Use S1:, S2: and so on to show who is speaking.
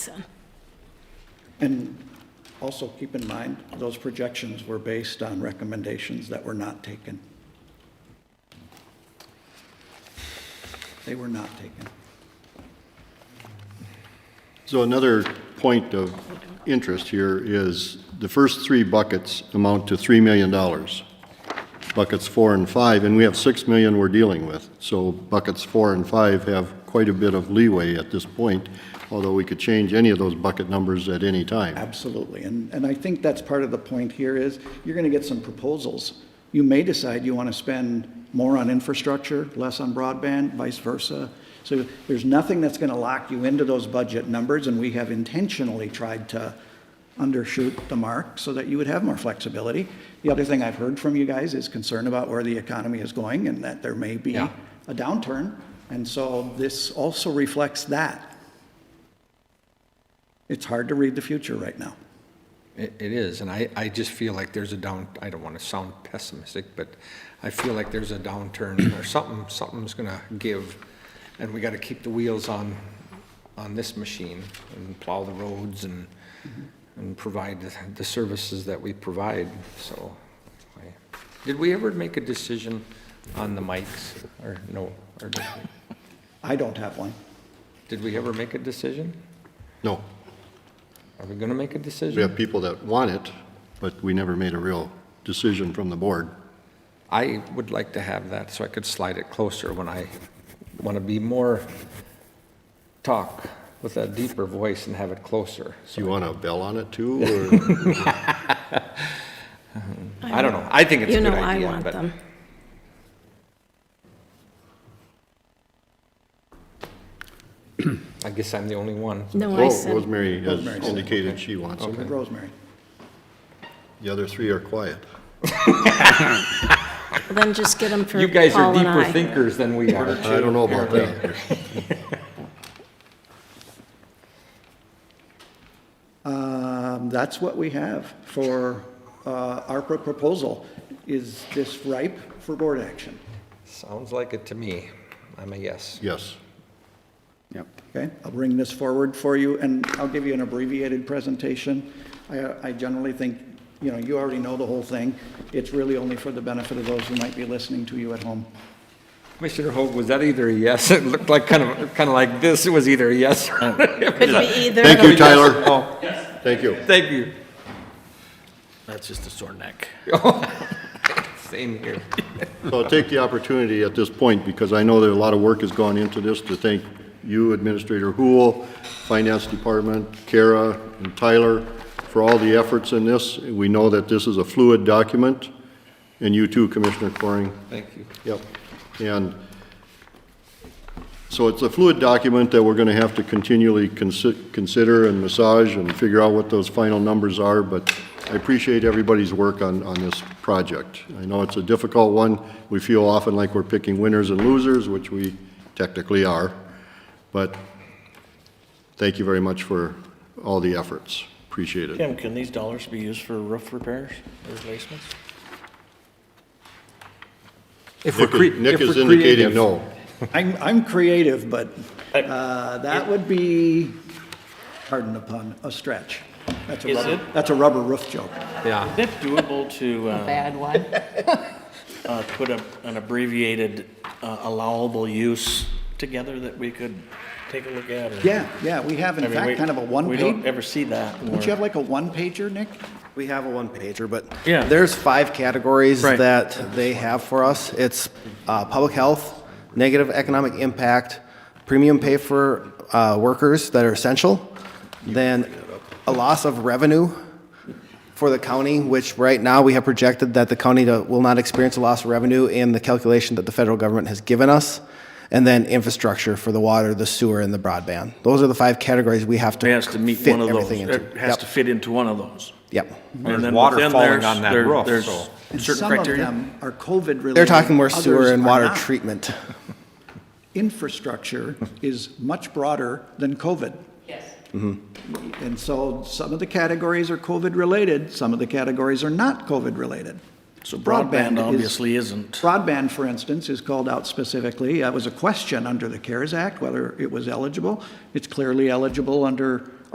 S1: And also keep in mind, those projections were based on recommendations that were not taken. They were not taken.
S2: So another point of interest here is the first three buckets amount to $3 million. Buckets four and five, and we have 6 million we're dealing with. So buckets four and five have quite a bit of leeway at this point, although we could change any of those bucket numbers at any time.
S1: Absolutely. And, and I think that's part of the point here is you're going to get some proposals. You may decide you want to spend more on infrastructure, less on broadband, vice versa. So there's nothing that's going to lock you into those budget numbers, and we have intentionally tried to undershoot the mark so that you would have more flexibility. The other thing I've heard from you guys is concern about where the economy is going and that there may be
S3: Yeah.
S1: a downturn. And so this also reflects that. It's hard to read the future right now.
S3: It, it is, and I, I just feel like there's a down, I don't want to sound pessimistic, but I feel like there's a downturn or something, something's gonna give. And we gotta keep the wheels on, on this machine and plow the roads and, and provide the, the services that we provide, so. I- Did we ever make a decision on the mics or no? Or did we-
S1: I don't have one.
S3: did we ever make a decision?
S2: No,
S3: Are we gonna make a decision?
S2: we have people that want it, but we never made a real decision from the board.
S3: I would like to have that so I could slide it closer when I want to be more, talk with a deeper voice and have it closer.
S2: Do you want a bell on it too, or?
S3: I don't know. I think it's a
S4: You
S3: good
S4: know I
S3: idea,
S4: want
S3: but
S4: them.
S3: I guess I'm the only one.
S4: No, I
S2: Oh,
S4: said,
S2: Rosemary has
S1: Rosemary said.
S2: indicated she wants it.
S1: Rosemary.
S2: The other three are quiet.
S4: then just get them for
S3: You guys are
S4: Paul and
S3: deeper
S4: I.
S3: thinkers than we are.
S2: I don't know about that.
S1: Um, That's what we have for uh, our pro- proposal. Is this ripe for board action?
S3: Sounds like it to me. I'm a yes.
S2: Yes.
S1: Okay, I'll bring this forward for you, and I'll give you an abbreviated presentation. I, I generally think, you know, you already know the whole thing. It's really only for the benefit of those who might be listening to you at home.
S3: Commissioner Hope, was that either a yes? It looked like kind of, kind of like this. It was either a yes or
S4: Could be either.
S2: Thank you, Tyler.
S3: no.
S2: Thank you.
S3: Thank you.
S5: That's just a sore neck.
S3: Same here.
S2: So I'll take the opportunity at this point, because I know that a lot of work has gone into this, to thank you, Administrator Hool, Finance Department, Kara, and Tyler, for all the efforts in this. We know that this is a fluid document, and you too, Commissioner Coring.
S3: Thank you.
S2: Yep. And so it's a fluid document that we're going to have to continually consi- consider and massage and figure out what those final numbers are, but I appreciate everybody's work on, on this project. I know it's a difficult one. We feel often like we're picking winners and losers, which we technically are, but thank you very much for all the efforts. Appreciate it.
S5: Tim, can these dollars be used for roof repairs or replacements?
S3: If we're
S2: Nick
S3: cre-
S2: is- Nick
S3: if
S2: is
S3: we're
S2: indicating
S3: creative-
S2: no.
S1: I'm, I'm creative, but uh, that would be, pardon the pun, a stretch. That's a
S5: Is
S1: rubber,
S5: it?
S1: that's a rubber roof joke.
S3: Yeah.
S5: Is it doable to, uh,
S6: bad one.
S5: uh, put a, an abbreviated uh, allowable use together that we could take a look at? or-
S1: Yeah, yeah, we have
S5: I
S1: in
S5: mean, we-
S1: fact kind of a
S5: We
S1: one-page,
S5: don't ever see that. in
S1: don't you
S5: our-
S1: have like a one-pager, Nick?
S7: We have a one pager, but
S5: Yeah.
S7: there's five categories
S5: Right.
S7: that they have for us. It's uh, public health, negative economic impact, premium pay for uh, workers that are essential, then a loss of revenue for the county, which right now we have projected that the county to- will not experience a loss of revenue in the calculation that the federal government has given us, and then infrastructure for the water, the sewer, and the broadband. Those are the five categories we have to
S5: It has to meet
S7: fit
S5: one of those.
S7: everything into.
S5: It has
S7: Yep.
S5: to fit into one of those.
S7: Yep.
S3: There's
S5: And then
S3: water
S5: within
S3: falling
S5: there's-
S3: on that
S5: there-
S3: roof,
S5: There's
S3: so-
S1: And
S5: certain
S1: some of
S5: criteria.
S1: them are COVID-related.
S7: They're talking more
S1: others
S7: sewer and
S1: are
S7: water
S1: not.
S7: treatment.
S1: Infrastructure is much broader than COVID. Yes.
S7: Mm-hmm.
S1: And so some of the categories are COVID-related, some of the categories are not COVID-related.
S5: So broadband
S1: is-
S5: obviously isn't.
S1: Broadband, for instance, is called out specifically. That was a question under the CARES Act, whether it was eligible. It's clearly eligible under